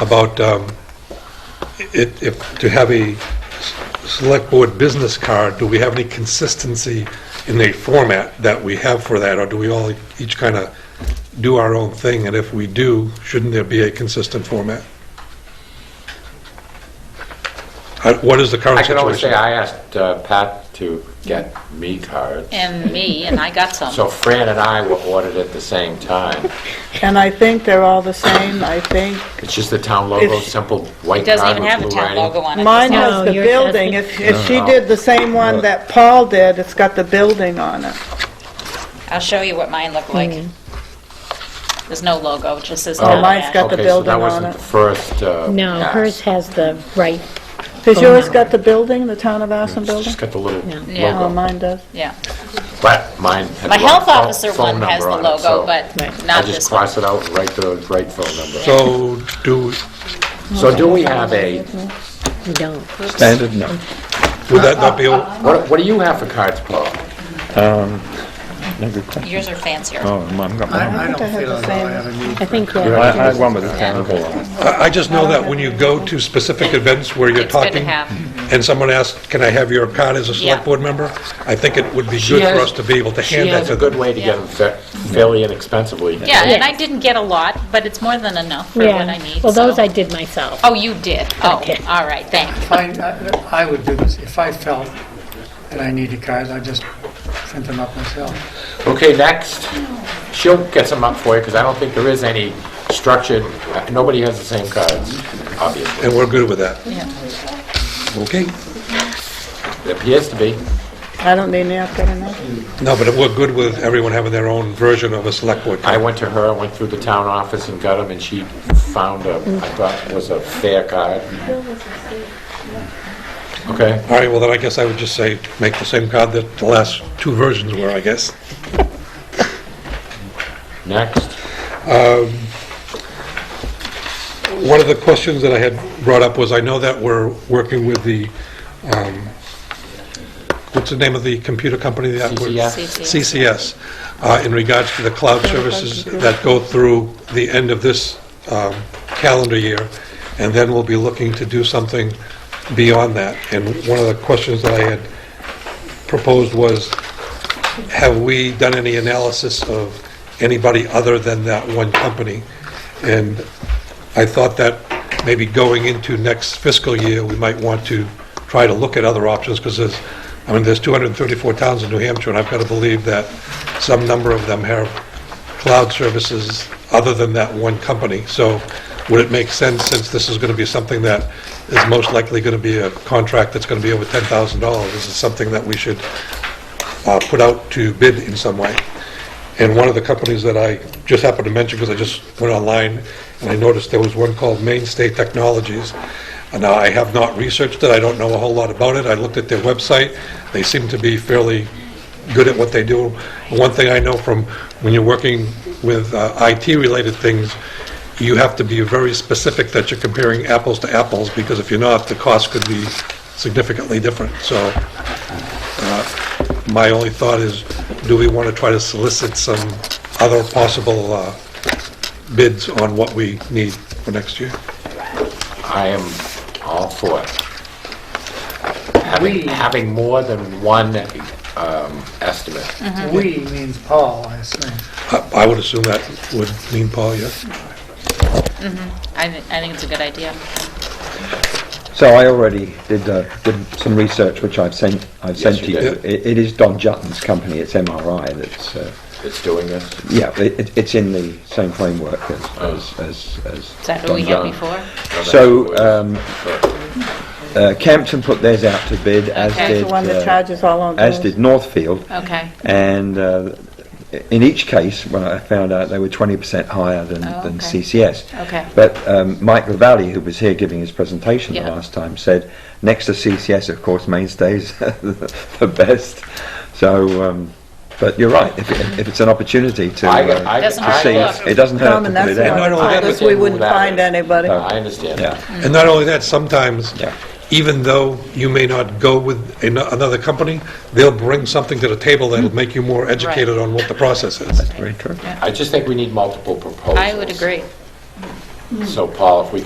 about um, it, if, to have a s- select board business card, do we have any consistency in the format that we have for that, or do we all each kind of do our own thing? And if we do, shouldn't there be a consistent format? Uh, What is the current I situation? can only say, I asked uh, Pat to get me cards. and me, and I got some. So Fran and I were ordered at the same time. And I think they're all the same, I think. It's just the town logo, It's- simple white It doesn't card even have the with blue town writing. logo on it. Mine It's has not- the yours has building, the- if, if she did the same one that Paul did, it's got the building on it. I'll show you what mine looked like. There's no logo, it just says Oh, town mine's ash. got the building on Okay, so that wasn't it. the first uh, No, pass. hers has the right, Does yours got the building, the town of Aspen It's building? just got the little Yeah. Oh, logo. mine does. Yeah. But mine had My the wrong health pho- officer phone one has the number on it, so logo, but Right. not I just this one. cross it out and write the right phone number. So do, So do we have a, you don't. Standard, no. would that not be, a- what what do you have for cards, Paul? Um, No good question. Yours are fancier. Oh, I've got I one. I don't I had feel the as though same. I have a need I think, uh, You're yeah, I I had one with a town hall on it. I I just know that when you go to specific events where you're It's good to talking, have. and someone asks, can I have your card as a select Yeah. board member? I think it would be She good for has- us to be able to hand She that has to a them. good way to get them fa- fairly inexpensively. Yeah, and I Yes. didn't get a lot, but it's more than enough for what I yeah. need. Well, those so- I did myself. Oh, you did? Oh, Okay. all right, thank you. Fine, I I would do this, if I felt that I needed cards, I'd just print them up myself. Okay, next. She'll get some up for you, because I don't think there is any structured, uh, nobody has the same cards, obviously. And we're good with that? Yeah. Okay. It appears to be. I don't need napkin enough. No, but we're good with everyone having their own version of a select board I card. went to her, I went through the town office and got them, and she found a, I thought was a fair card. Okay, All right, well, then I guess I would just say, make the same card that the last two versions were, I guess. next. One of the questions that I had brought up was, I know that we're working with the, um, what's the name of the computer company? that we're- CCS. CCS, uh, in regards to the cloud services that go through the end of this um, calendar year, and then we'll be looking to do something beyond that. And one of the questions that I had proposed was, have we done any analysis of anybody other than that one company? And I thought that maybe going into next fiscal year, we might want to try to look at other options, because there's, I mean, there's 234 towns in New Hampshire, and I've got to believe that some number of them have cloud services other than that one company. So would it make sense, since this is going to be something that is most likely going to be a contract that's going to be over $10,000, is it something that we should uh, put out to bid in some way. And one of the companies that I just happened to mention, because I just went online and I noticed there was one called Mainstay Technologies. And Now, I have not researched it, I don't know a whole lot about it, I looked at their website, they seem to be fairly good at what they do. One thing I know from when you're working with uh, IT-related things, you have to be very specific that you're comparing apples to apples, because if you're not, the cost could be significantly different. So my only thought is, do we want to try to solicit some other possible uh, bids on what we need for next year? I am all for it. Having, having more than one um, estimate. We means Paul, I assume. I I would assume that would mean Paul, yes? I thi- I think it's a good idea. So I already did, uh, did some research, which I've sent, I've Yes, sent to you you. did. It it is Don Jutton's company, it's MRI that's, uh, It's doing this. yeah, it- it- it's in the same framework as- as, as, as. Is that who we had Done. before? So um, uh, Campton put theirs out to bid, as Okay. It's did, the one that uh, charges all on as did those. Northfield. Okay. And uh, in each case, when I found out, they were 20% higher than, Oh, than okay. CCS. Okay. But um, Mike Ravalli, who was here giving his presentation Yeah. the last time, said next to CCS, of course, Mainstays the best. So, um, but you're right. If, it, if it's an opportunity to, I, uh, I, Doesn't to I hurt see, look. guess, it doesn't hurt Tom, to and put that's it not No, part no, that- of us, we wouldn't that find is. anybody. No. I understand. Yeah. And not only that, sometimes, Yeah. even though you may not go with an- another company, they'll bring something to the table that'll make you more educated on what the process is. Very true. I just think we need multiple proposals. I would agree. So Paul, if we could